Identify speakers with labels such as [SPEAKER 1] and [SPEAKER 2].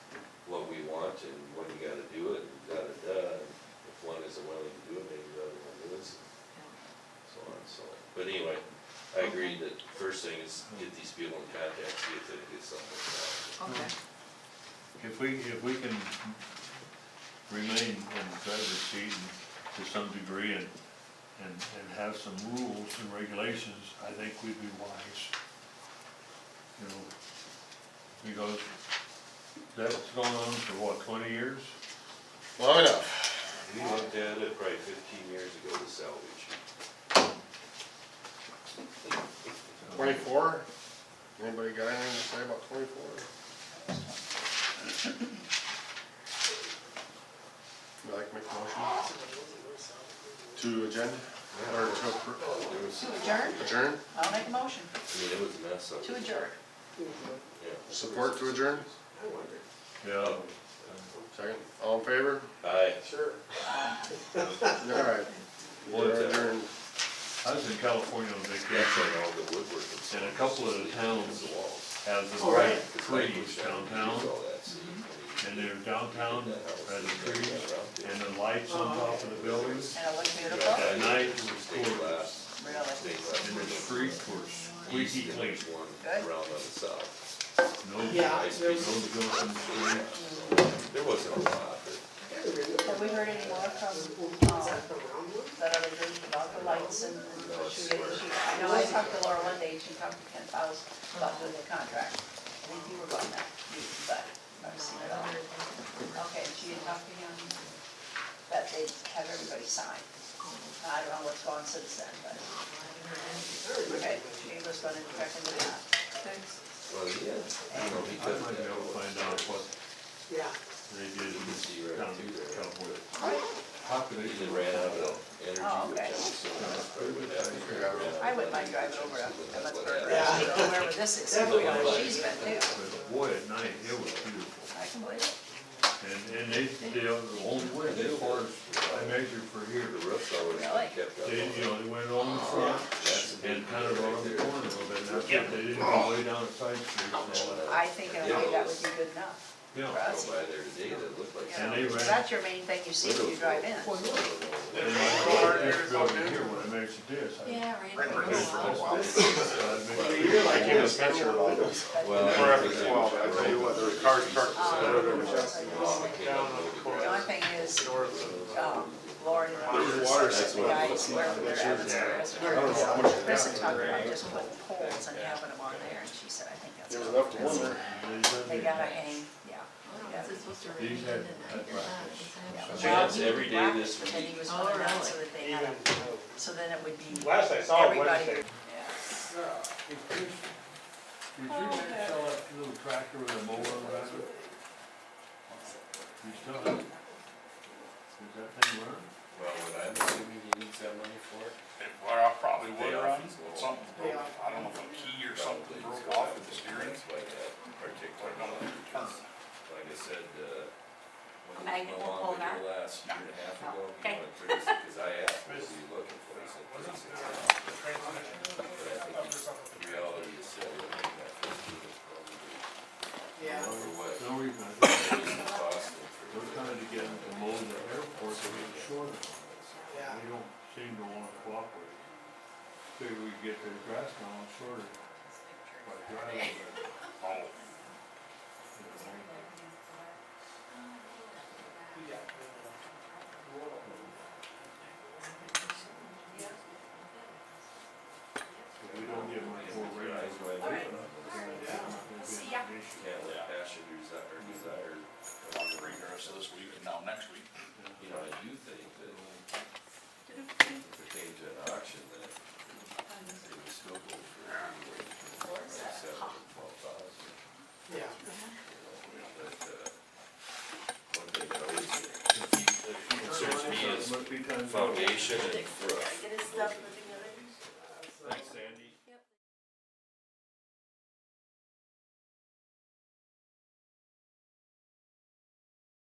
[SPEAKER 1] much and when you gotta do it, da, da, da. If one isn't willing to do it, maybe the other one is, so on and so. on. But anyway, I agree that first thing is get these people in contact, see if they can get something done.
[SPEAKER 2] Okay,
[SPEAKER 3] If we, if we can remain on the driver's seat to some degree and, and, and have some rules and regulations, I think we'd be wise. You know, because that's gone on for what, twenty years?
[SPEAKER 4] Long enough.
[SPEAKER 1] We looked at it probably fifteen years ago to salvage.
[SPEAKER 4] Twenty-four? Anybody got anything to say about twenty-four? You like to make a motion to agenda or to appro-
[SPEAKER 1] There was,
[SPEAKER 2] to adjourn,
[SPEAKER 4] adjourn?
[SPEAKER 2] I'll make a motion
[SPEAKER 1] I mean, it was a mess up
[SPEAKER 2] to adjourn.
[SPEAKER 1] Yeah.
[SPEAKER 4] Support to adjourn?
[SPEAKER 3] Yeah.
[SPEAKER 4] Second, all in favor?
[SPEAKER 1] Aye.
[SPEAKER 4] Alright. We're adjourned.
[SPEAKER 3] I was in California on
[SPEAKER 1] That's
[SPEAKER 3] vacation,
[SPEAKER 1] on all the woodwork.
[SPEAKER 3] and a couple of the towns
[SPEAKER 1] The walls.
[SPEAKER 3] have the
[SPEAKER 2] Oh,
[SPEAKER 3] right
[SPEAKER 2] right.
[SPEAKER 3] trees downtown,
[SPEAKER 1] All that, see, I mean,
[SPEAKER 3] and uh, they're downtown,
[SPEAKER 1] that house
[SPEAKER 3] by
[SPEAKER 1] is
[SPEAKER 3] the
[SPEAKER 1] very
[SPEAKER 3] trees,
[SPEAKER 1] rounded.
[SPEAKER 3] and the lights on top of the buildings.
[SPEAKER 2] And it looked beautiful,
[SPEAKER 3] At night, it was
[SPEAKER 1] Stained
[SPEAKER 3] gorgeous.
[SPEAKER 1] glass,
[SPEAKER 2] really.
[SPEAKER 1] stained glass.
[SPEAKER 3] And the streets were squeaky
[SPEAKER 1] East and
[SPEAKER 3] clean.
[SPEAKER 1] there's one
[SPEAKER 2] Good.
[SPEAKER 1] Around on the south.
[SPEAKER 3] No,
[SPEAKER 5] Yeah.
[SPEAKER 3] no
[SPEAKER 1] Nice piece of-
[SPEAKER 3] buildings in the streets.
[SPEAKER 1] There wasn't a lot, but
[SPEAKER 2] Have we heard any more from, um, that other group about the lights and the shooting? She- I know I talked to Laura one day, she talked to Ken Faust about doing the contract. I think you were going that, meeting, but I've seen it all. Okay, and she had talked to him, that they have everybody sign. I don't know what's gone since then, but. Okay, she was gonna check into that.
[SPEAKER 1] Well, yeah, you know, he
[SPEAKER 3] I
[SPEAKER 1] took
[SPEAKER 3] might
[SPEAKER 1] that
[SPEAKER 3] be able to
[SPEAKER 1] one.
[SPEAKER 3] find out what
[SPEAKER 5] Yeah.
[SPEAKER 3] they did in this
[SPEAKER 1] You can see right
[SPEAKER 3] town
[SPEAKER 1] through there.
[SPEAKER 3] California.
[SPEAKER 1] He
[SPEAKER 3] Population.
[SPEAKER 1] just ran out of energy.
[SPEAKER 2] Oh,
[SPEAKER 1] which
[SPEAKER 2] okay.
[SPEAKER 1] is so nice, but it would have to
[SPEAKER 4] Yeah.
[SPEAKER 1] ran out
[SPEAKER 2] I
[SPEAKER 1] of
[SPEAKER 2] wouldn't mind
[SPEAKER 1] energy,
[SPEAKER 2] driving
[SPEAKER 1] which
[SPEAKER 2] over
[SPEAKER 1] is
[SPEAKER 2] to
[SPEAKER 1] what that would
[SPEAKER 2] Emmitsburg,
[SPEAKER 1] have.
[SPEAKER 5] Yeah.
[SPEAKER 2] Nebraska, or wherever this is,
[SPEAKER 5] Yeah.
[SPEAKER 2] you know, she's been too.
[SPEAKER 3] But boy, at night, it was beautiful.
[SPEAKER 2] I can believe it.
[SPEAKER 3] And, and they, they, are the only way, as far as I measure for here,
[SPEAKER 1] The roof's always
[SPEAKER 2] Really?
[SPEAKER 1] kept up.
[SPEAKER 3] they, you know, they went on the front and kind of around the corner a little bit. and that's what They didn't go way down the side streets and all that.
[SPEAKER 2] I think in a way that would be good enough.
[SPEAKER 3] Yeah.
[SPEAKER 1] I drove by there today, that looked like.
[SPEAKER 2] you
[SPEAKER 3] And
[SPEAKER 2] know,
[SPEAKER 3] they
[SPEAKER 2] 'cause
[SPEAKER 3] ran-
[SPEAKER 2] That's your main thing you see when you drive in.
[SPEAKER 3] And my next building here, when I measured this, I.
[SPEAKER 2] Yeah,
[SPEAKER 3] I measured this, I measured
[SPEAKER 4] You're like Kim Spencer about this.
[SPEAKER 1] Well,
[SPEAKER 4] Forever twelve, I tell you what, there was cars parked.
[SPEAKER 2] The only thing is, um, Lauren and Mark,
[SPEAKER 1] that's
[SPEAKER 2] the
[SPEAKER 1] what-
[SPEAKER 2] guys, wherever they're at, it's where it's
[SPEAKER 4] Oh,
[SPEAKER 2] at. Chris had talked about just putting poles and having them on there, and she said, I think that's.
[SPEAKER 4] There was enough to wonder.
[SPEAKER 2] They gotta hang, yeah. yeah.
[SPEAKER 3] These had-
[SPEAKER 1] She has every day this
[SPEAKER 2] And
[SPEAKER 1] week.
[SPEAKER 2] he was putting
[SPEAKER 5] Oh,
[SPEAKER 2] it out so that they had, a- so then it would be
[SPEAKER 5] Last I saw
[SPEAKER 2] everybody.
[SPEAKER 5] Wednesday.
[SPEAKER 2] Yeah.
[SPEAKER 3] Did you guys sell that little tractor with a mower on it? You still have it? Is that thing running?
[SPEAKER 1] Well, what I'm assuming he needs that money for it.
[SPEAKER 6] It- Well, I probably would
[SPEAKER 1] They
[SPEAKER 6] run,
[SPEAKER 1] often will.
[SPEAKER 6] but something broke, I don't know if a key or
[SPEAKER 1] Probably
[SPEAKER 6] something broke
[SPEAKER 1] it's got
[SPEAKER 6] off of the
[SPEAKER 1] that
[SPEAKER 6] steering.
[SPEAKER 1] That's why that
[SPEAKER 6] Or
[SPEAKER 1] particular,
[SPEAKER 6] no,
[SPEAKER 1] one,
[SPEAKER 6] turn.
[SPEAKER 1] like I said, uh, when
[SPEAKER 2] Magnet
[SPEAKER 1] we were on
[SPEAKER 2] will pull
[SPEAKER 1] with your
[SPEAKER 2] that?
[SPEAKER 1] last year and a half ago, he
[SPEAKER 2] Okay.
[SPEAKER 1] went thirty-six, cause I asked, what are you looking for? He said thirty-six. But I think in reality is that we're making that fifteen is probably
[SPEAKER 5] Yeah.
[SPEAKER 1] overweight.
[SPEAKER 3] No reason, I think
[SPEAKER 1] It's costing for-
[SPEAKER 3] we're trying to get them to mow the airport to make sure that
[SPEAKER 5] Yeah.
[SPEAKER 3] they don't seem to wanna cooperate. Figure we could get their grass down shorter by driving it.
[SPEAKER 6] Oh.
[SPEAKER 3] you know. If we don't get much more rain,
[SPEAKER 1] Eyes
[SPEAKER 3] it's
[SPEAKER 1] wide
[SPEAKER 3] not
[SPEAKER 1] open.
[SPEAKER 3] gonna be an issue.
[SPEAKER 1] Can't let passion desire, or desire,
[SPEAKER 6] I'll have to read the rest of this week and now next week.
[SPEAKER 1] you know, I do think that if it came to an auction, that it would still go for anywhere between like seven and twelve thousand.
[SPEAKER 5] Yeah.
[SPEAKER 1] But, uh, one thing that always concerns me is
[SPEAKER 3] Must be times-
[SPEAKER 1] foundation and roof.
[SPEAKER 7] Get his stuff together.
[SPEAKER 3] Thanks, Sandy.